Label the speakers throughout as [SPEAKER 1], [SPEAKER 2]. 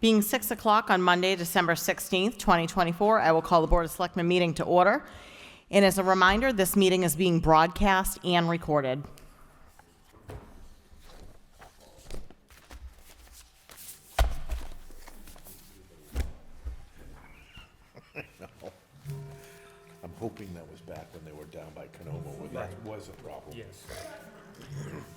[SPEAKER 1] Being 6 o'clock on Monday, December 16th, 2024, I will call the Board of Selectmen meeting to order. And as a reminder, this meeting is being broadcast and recorded.
[SPEAKER 2] I'm hoping that was back when they were down by Canoma, where that was a problem.
[SPEAKER 3] Yes.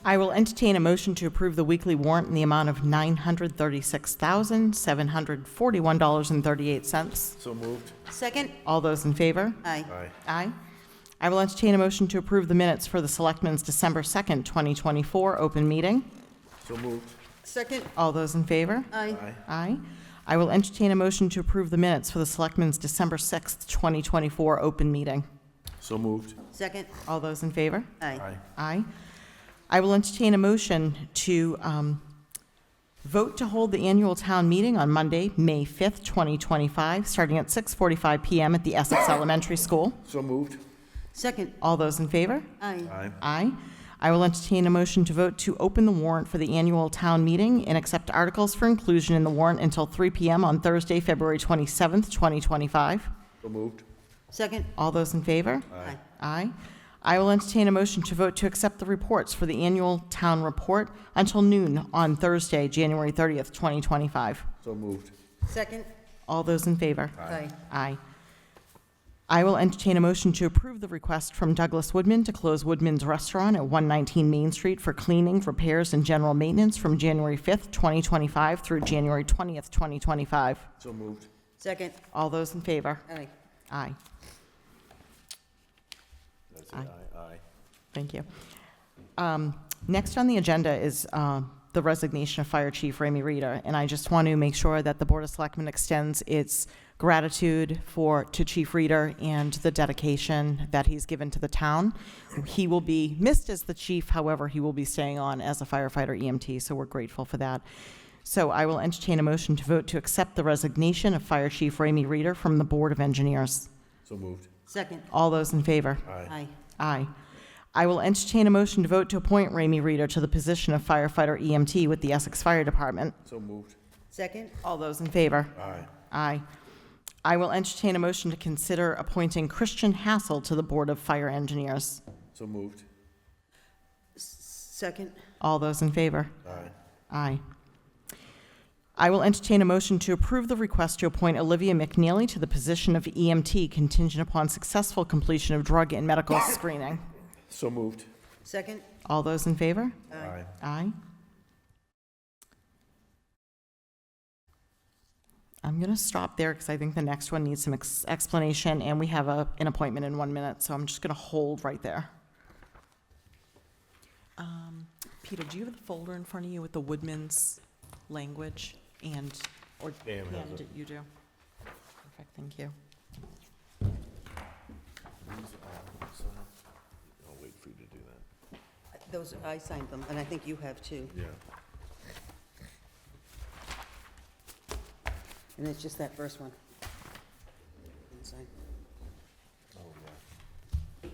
[SPEAKER 1] I will entertain a motion to approve the weekly warrant in the amount of $936,741.38.
[SPEAKER 2] So moved?
[SPEAKER 4] Second?
[SPEAKER 1] All those in favor?
[SPEAKER 4] Aye.
[SPEAKER 2] Aye.
[SPEAKER 1] Aye. I will entertain a motion to approve the minutes for the Selectmen's December 2nd, 2024, open meeting.
[SPEAKER 2] So moved?
[SPEAKER 4] Second?
[SPEAKER 1] All those in favor?
[SPEAKER 4] Aye.
[SPEAKER 2] Aye.
[SPEAKER 1] Aye. I will entertain a motion to approve the minutes for the Selectmen's December 6th, 2024, open meeting.
[SPEAKER 2] So moved?
[SPEAKER 4] Second?
[SPEAKER 1] All those in favor?
[SPEAKER 4] Aye.
[SPEAKER 1] Aye. I will entertain a motion to um, vote to hold the annual town meeting on Monday, May 5th, 2025, starting at 6:45 PM at the Essex Elementary School.
[SPEAKER 2] So moved?
[SPEAKER 4] Second?
[SPEAKER 1] All those in favor?
[SPEAKER 4] Aye.
[SPEAKER 2] Aye.
[SPEAKER 1] Aye. I will entertain a motion to vote to open the warrant for the annual town meeting and accept articles for inclusion in the warrant until 3 PM on Thursday, February 27th, 2025.
[SPEAKER 2] So moved?
[SPEAKER 4] Second?
[SPEAKER 1] All those in favor?
[SPEAKER 4] Aye.
[SPEAKER 1] Aye. I will entertain a motion to vote to accept the reports for the annual town report until noon on Thursday, January 30th, 2025.
[SPEAKER 2] So moved?
[SPEAKER 4] Second?
[SPEAKER 1] All those in favor?
[SPEAKER 4] Aye.
[SPEAKER 1] Aye. I will entertain a motion to approve the request from Douglas Woodman to close Woodman's Restaurant at 119 Main Street for cleaning, repairs, and general maintenance from January 5th, 2025 through January 20th, 2025.
[SPEAKER 2] So moved?
[SPEAKER 4] Second?
[SPEAKER 1] All those in favor?
[SPEAKER 4] Aye.
[SPEAKER 1] Aye.
[SPEAKER 2] That's it, aye, aye.
[SPEAKER 1] Thank you. Um, Next on the agenda is uh, the resignation of Fire Chief Ramey Rita, and I just want to make sure that the Board of Selectmen extends its gratitude for, to Chief Reader and the dedication that he's given to the town. He will be missed as the chief, however, he will be staying on as a firefighter EMT, so we're grateful for that. So I will entertain a motion to vote to accept the resignation of Fire Chief Ramey Reader from the Board of Engineers.
[SPEAKER 2] So moved?
[SPEAKER 4] Second?
[SPEAKER 1] All those in favor?
[SPEAKER 2] Aye.
[SPEAKER 4] Aye.
[SPEAKER 1] Aye. I will entertain a motion to vote to appoint Ramey Reader to the position of firefighter EMT with the Essex Fire Department.
[SPEAKER 2] So moved?
[SPEAKER 4] Second?
[SPEAKER 1] All those in favor?
[SPEAKER 2] Aye.
[SPEAKER 1] Aye. I will entertain a motion to consider appointing Christian Hassel to the Board of Fire Engineers.
[SPEAKER 2] So moved?
[SPEAKER 4] Second?
[SPEAKER 1] All those in favor?
[SPEAKER 2] Aye.
[SPEAKER 1] Aye. I will entertain a motion to approve the request to appoint Olivia McNeely to the position of EMT contingent upon successful completion of drug and medical screening.
[SPEAKER 2] So moved?
[SPEAKER 4] Second?
[SPEAKER 1] All those in favor?
[SPEAKER 2] Aye.
[SPEAKER 1] Aye. I'm going to stop there because I think the next one needs some ex- explanation, and we have a, an appointment in one minute, so I'm just going to hold right there.
[SPEAKER 5] Um, Peter, do you have the folder in front of you with the Woodman's language and, or,
[SPEAKER 2] Pam has
[SPEAKER 5] and you do? Perfect, thank you.
[SPEAKER 2] I'll wait for you to do that.
[SPEAKER 4] Those, I signed them, and I think you have too.
[SPEAKER 2] Yeah.
[SPEAKER 4] And it's just that first one. Sign.
[SPEAKER 2] Oh, yeah.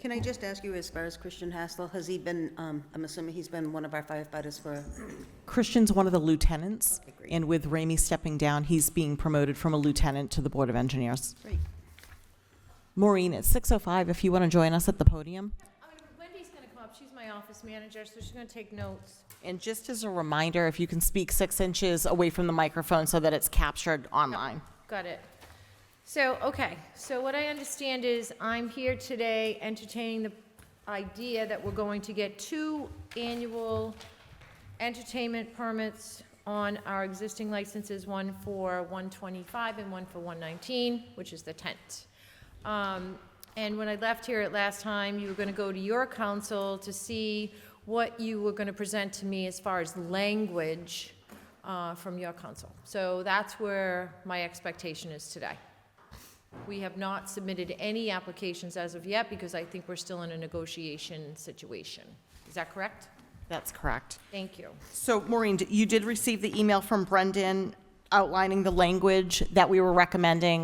[SPEAKER 4] Can I just ask you, as far as Christian Hassel, has he been, um, I'm assuming he's been one of our firefighters for,
[SPEAKER 1] Christian's one of the lieutenants,
[SPEAKER 4] Okay, great.
[SPEAKER 1] and with Ramey stepping down, he's being promoted from a lieutenant to the Board of Engineers.
[SPEAKER 4] great.
[SPEAKER 1] Maureen, it's 6:05 if you want to join us at the podium.
[SPEAKER 6] I mean, Wendy's gonna come up, she's my office manager, so she's gonna take notes.
[SPEAKER 1] And just as a reminder, if you can speak six inches away from the microphone so that it's captured online.
[SPEAKER 6] Got it. So, okay, so what I understand is I'm here today entertaining the idea that we're going to get two annual entertainment permits on our existing licenses, one for 125 and one for 119, which is the tent. Um, And when I left here at last time, you were going to go to your council to see what you were going to present to me as far as language uh, from your council. So that's where my expectation is today. We have not submitted any applications as of yet because I think we're still in a negotiation situation. Is that correct?
[SPEAKER 1] That's correct.
[SPEAKER 6] Thank you.
[SPEAKER 1] So Maureen, d- you did receive the email from Brendan outlining the language that we were recommending